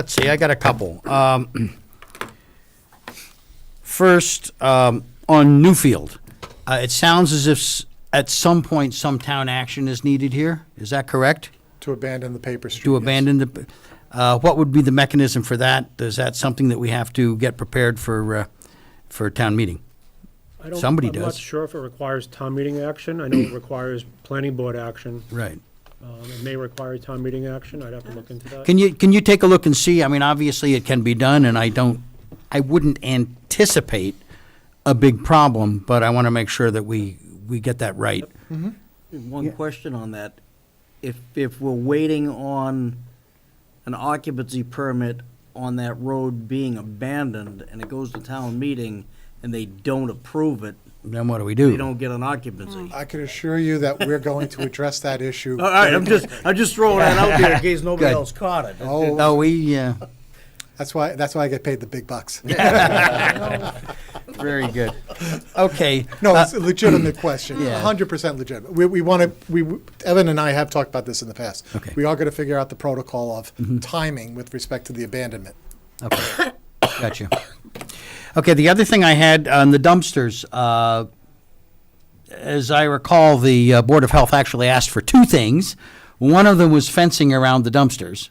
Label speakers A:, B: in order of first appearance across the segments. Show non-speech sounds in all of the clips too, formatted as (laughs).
A: Let's see, I got a couple. Um, First, um, on Newfield, uh, it sounds as if s- at some point, some town action is needed here. Is that correct?
B: To abandon the paper street.
A: To
B: yes.
A: abandon the, uh, what would be the mechanism for that? Is that something that we have to get prepared for, uh, for town meeting?
C: I don't-
A: Somebody
C: I'm not
A: does.
C: sure if it requires town meeting action. I know it requires planning board action.
A: Right.
C: Um, It may require town meeting action. I'd have to look into that.
A: Can you, can you take a look and see? I mean, obviously, it can be done, and I don't, I wouldn't anticipate a big problem, but I want to make sure that we, we get that right.
D: One question on that. If, if we're waiting on an occupancy permit on that road being abandoned and it goes to town meeting and they don't approve it,
A: Then what do we
D: they
A: do?
D: don't get an occupancy.
B: I can assure you that we're going to address that issue.
D: All right, I'm just, I'm just throwing that out there in case nobody
A: Good.
D: else caught it.
B: Oh,
A: No, we, uh,
B: that's why, that's why I get paid the big bucks.
A: uh, (laughs) very good. Okay.
B: (laughs) No,
A: uh,
B: it's a legitimate
A: (clears throat)
B: question,
A: Yeah.
B: hundred percent legitimate. We, we want to, we, Evan and I have talked about this in the past.
A: Okay. Mm-hmm.
B: We are going to figure out the protocol of timing with respect to the abandonment.
A: Okay, gotcha. Okay, the other thing I had on the dumpsters, uh, as I recall, the uh, Board of Health actually asked for two things. One of them was fencing around the dumpsters.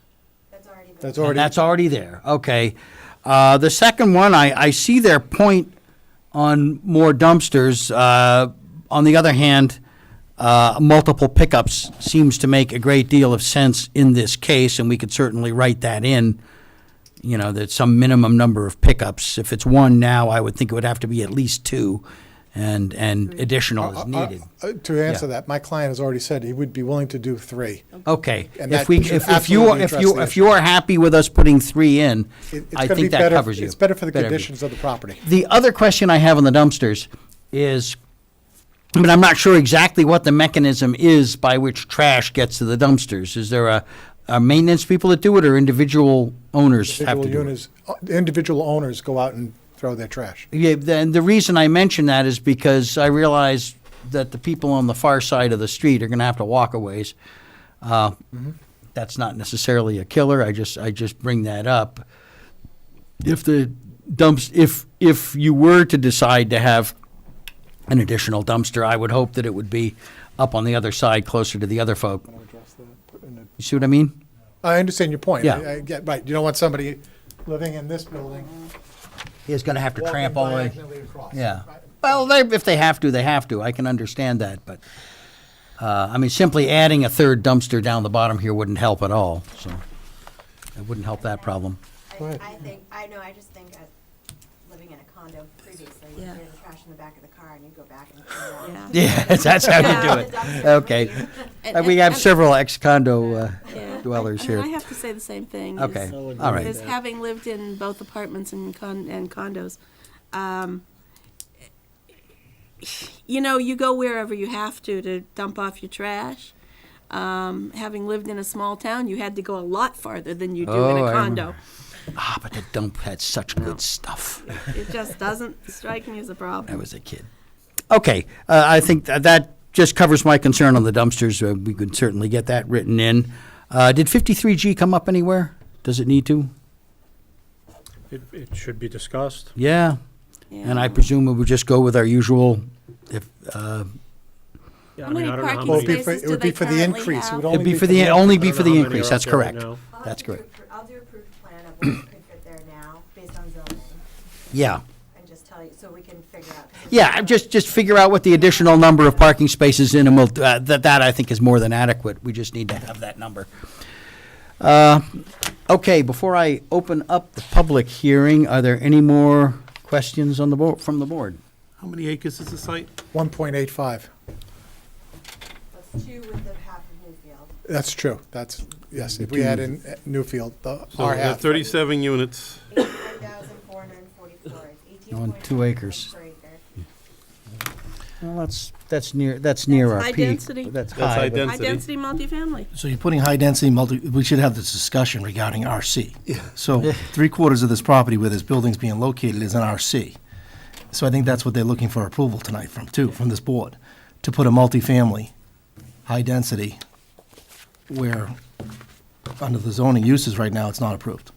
E: That's already there.
B: That's
A: and
B: already,
A: That's already there, okay. Uh, The second one, I, I see their point on more dumpsters. Uh, On the other hand, uh, multiple pickups seems to make a great deal of sense in this case, and we could certainly write that in, you know, that some minimum number of pickups. If it's one now, I would think it would have to be at least two, and, and additional is needed.
B: Uh, to answer
A: Yeah.
B: that, my client has already said he would be willing to do three.
A: Okay,
B: And
A: if
B: that
A: we,
B: should
A: if if you, are-
B: absolutely
A: if
B: address
A: you,
B: the
A: if
B: issue.
A: you are happy with us putting three in,
B: It- it's
A: I
B: gonna be
A: think that
B: better-
A: covers you.
B: It's better for the
A: be.
B: conditions of the property.
A: The other question I have on the dumpsters is, I mean, I'm not sure exactly what the mechanism is by which trash gets to the dumpsters. Is there a, a maintenance people that do it, or individual owners have to
B: Individual
A: do it?
B: owners, individual owners go out and throw their trash.
A: Yeah, and the reason I mention that is because I realize that the people on the far side of the street are gonna have to walk a ways. Uh, That's not necessarily a killer, I just, I just bring that up. If the dumps, if, if you were to decide to have an additional dumpster, I would hope that it would be up on the other side, closer to the other folk. You see what I mean?
B: I understand your point.
A: Yeah.
B: I- I get- Right, you don't want somebody living in this building.
A: He's gonna have to
B: walking
A: tramp all the way.
B: diagonally across.
A: Yeah.
B: Right.
A: Well, they, if they have to, they have to. I can understand that, but, uh, I mean, simply adding a third dumpster down the bottom here wouldn't help at all, so. It wouldn't help that problem. (laughs)
B: Go
E: I,
B: ahead.
E: I think, I know, I just think, uh, living in a condo previously, you
F: Yeah.
E: threw the trash in the back of the car and you go back and. clean it up.
A: Yeah, that's how you do it. (laughs) Okay. Uh, We have several ex-condo uh,
F: Yeah.
A: dwellers
F: I- I mean,
A: here.
F: I have to say the same thing. is-
A: Okay, all right.
F: Is having lived in both apartments and con, and condos, um, you know, you go wherever you have to to dump off your trash. Um, having lived in a small town, you had to go a lot farther than you do
A: Oh,
F: in
A: I
F: a condo.
A: remember. Ah, but the dump had such good stuff.
F: It just doesn't strike me as a
A: I
F: problem.
A: was a kid. Okay, uh, I think tha- that just covers my concern on the dumpsters. Uh, We could certainly get that written in. Uh, Did 53G come up anywhere? Does it need to?
C: It, it should be discussed.
A: Yeah, and I
F: Yeah.
A: presume we would just go with our usual, if, uh,
C: Yeah, I
F: How
C: mean,
F: many
C: I don't know how
F: parking
B: Well, it'd be
C: many-
B: for-
F: spaces
B: it
F: do
B: would be
F: they
B: for the
F: currently
B: increase. It
F: have?
B: would
A: it'd be for the,
B: I
A: only
C: I
A: be
C: don't
A: for
C: know
A: the
C: how many
A: increase,
C: are
A: that's
C: out there
A: correct.
C: now.
E: I'll
A: That's
E: have to
A: correct.
E: appro- I'll do approved plan of what could fit there now, based on zoning,
A: Yeah,
E: and just tell you, so we can figure out. 'cause it's-
A: yeah, I'm just, just figure out what the additional number of parking spaces in, and we'll, uh, that, that I think is more than adequate. We just need to have that number. Uh, Okay, before I open up the public hearing, are there any more questions on the board, from the board?
G: How many acres is the site?
B: One point eight five.
E: That's two with the half of Newfield.
B: That's true. That's, yes, if we add in uh, Newfield, the
H: Oh,
G: So
B: R
G: we have
B: half.
G: Thirty-seven units.
E: Eighty-one thousand four hundred and forty-four, eighteen
A: On
E: point.
A: two acres.
E: Per acre.
A: Well, that's, that's near, that's near our
F: high
A: peak.
F: density.
G: That's
A: That's
G: high
A: high, but
F: High density multifamily.
H: So you're putting high-density multi, we should have this discussion regarding RC. So three-quarters of this property where this building's being located is an RC. So I think that's what they're looking for approval tonight from, too, from this board, to put a multifamily, high-density, where, under the zoning uses right now, it's not approved.